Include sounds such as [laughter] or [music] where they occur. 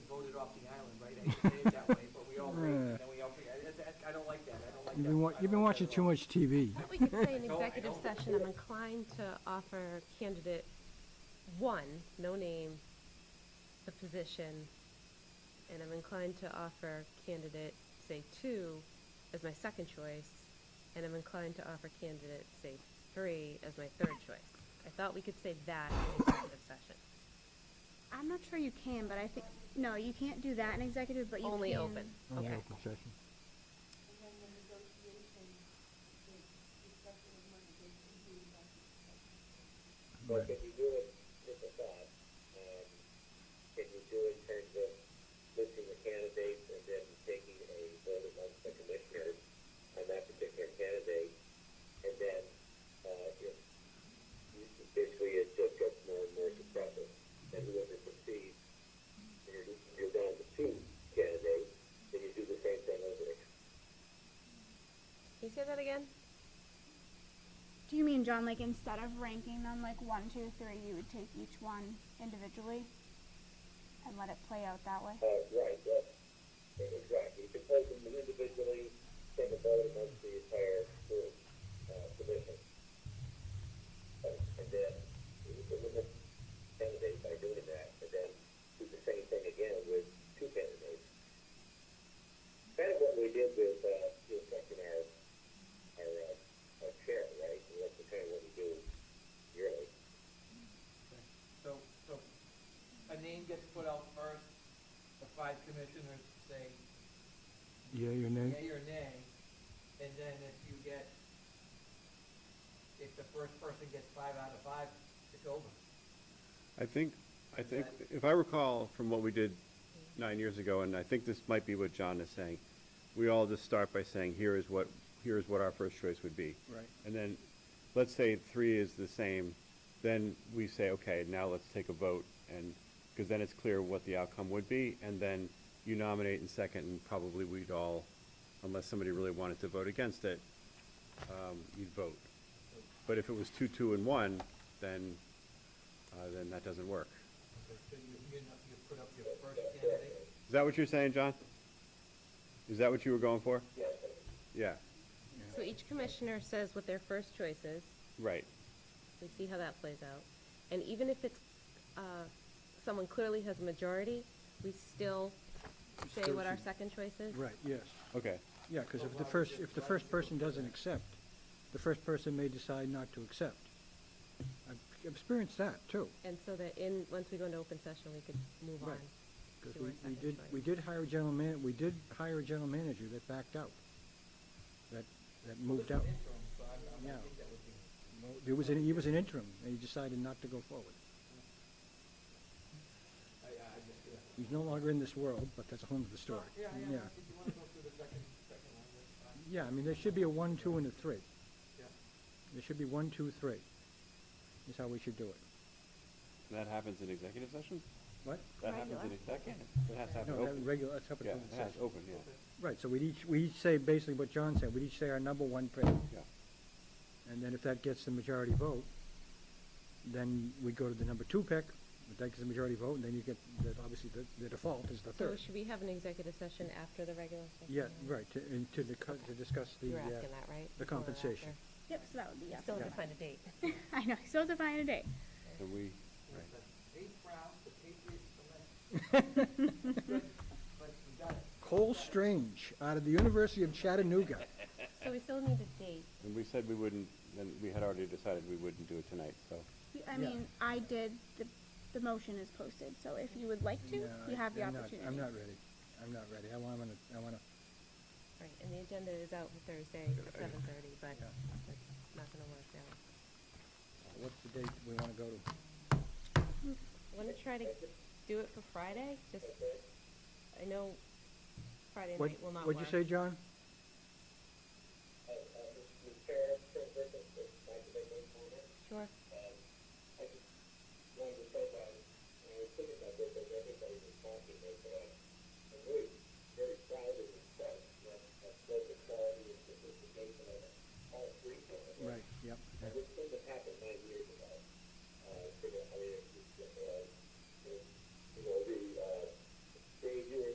off the island, right? I hate to say it that way, but we [laughs] all wait, and then we all, forget. I- I- I don't like that, I don't like that. You've been, wa- I don't you've been like that watching at too all. much TV. But we could say in I don't- I executive don't- session, I'm inclined to offer candidate one, no name, the position, and I'm inclined to offer candidate, say, two as my second choice, and I'm inclined to offer candidate, say, three as my third choice. I thought we could say that in executive session. I'm not sure you can, but I think, no, you can't do that in executive, but you can. Only open, okay. Open session. And then the negotiation, the discussion of money, they can do that. But can you do it, just a thought, um, can you do it in terms of listing the candidates and then taking a vote amongst the commissioners on that particular candidate? And then, uh, if, basically it just gets more and more suppressive, and whoever succeeds, you're, you're down to two candidates, then you do the same thing over again. Can you say that again? Do you mean, John, like instead of ranking them like one, two, three, you would take each one individually and let it play out that way? Uh, right, yeah, exactly. You can place them individually, take a vote amongst the entire group, uh, commission. Uh, And then, you can limit candidates by doing that, and then do the same thing again with two candidates. Kind of what we did with, uh, you know, second our, our, uh, our chair, right? And that's the kind of what we do yearly. Okay. So, so a name gets put out first, the five commissioners say Yeah, your name? yea or nay, and then if you get, if the first person gets five out of five, it's over. I think, I think, if I recall from what we did nine years ago, and I think this might be what John is saying, we all just start by saying, here is what, here is what our first choice would be. Right. And then, let's say three is the same, then we say, okay, now let's take a vote, and, because then it's clear what the outcome would be, and then you nominate in second, and probably we'd all, unless somebody really wanted to vote against it, um, you'd vote. But if it was two, two, and one, then, uh, then that doesn't work. So you, you, know, you put up your first candidate, Is that what you're saying, John? Is that what you were going for? Yeah, Yeah, So each commissioner says what their first choice is, right. We see how that plays out. And even if it's, uh, someone clearly has a majority, we still say what our second choice is? Right, yes. Okay, Yeah, because if the first, if the first person doesn't accept, the first person may decide not to accept. I've experienced that, too. And so that in, once we go into open session, we could move on. Right. Because to we, our we second did, choice. we did hire a general man, we did hire a general manager that backed out. That, that moved out. interim, so I, I Yeah. think that would be. There was an, he was an interim, and he decided not to go forward. I, I just, yeah. He's no longer in this world, but that's a whole other story. Yeah, Yeah. yeah, if you wanna go through the second, second one, that's fine, Yeah, I mean, there should be a one, two, and a three. yeah. There should be one, two, three, is how we should do it. And that happens in executive session? What? That happens in executive? It has to happen No, that open? regular, that's how it Yeah, goes. it has open, yeah, Right, so we'd each, we each say basically what John said, we'd each say our number one pick, yeah. and then if that gets the majority vote, then we go to the number two pick, if that gets the majority vote, and then you get, that obviously, the, the default is the So third. should we have an executive session after the regular session? Yeah, right, to, and to, dicu- to discuss the, You were uh, asking that, right? the Before or compensation. after? Yep, so that would be, Still yeah. have to find a date. [laughs] [laughs] I know, still define a day. And we, right. The eighth round, the Patriots select. [laughs] But we got it. Cole Strange, out of the University of Chattanooga. So we still need a date. And we said we wouldn't, and we had already decided we wouldn't do it tonight, so. I mean, I did, the, the motion is posted, so if you would like to, No, you have the I'm not- opportunity. I'm not ready, I'm not ready, I wanna, I wanna, Right, and the agenda is out for Thursday at seven thirty, but Yeah. it's not gonna work out. what's the date we wanna go to? Wanna try to do it for Friday? Just, I know Friday What, night will not work. what'd you say, John? Uh, uh, Mr. Chair, Chair, Mr. Chair, Mr. Chair, Mr. Chair, Mr. Chair, Sure. Uh,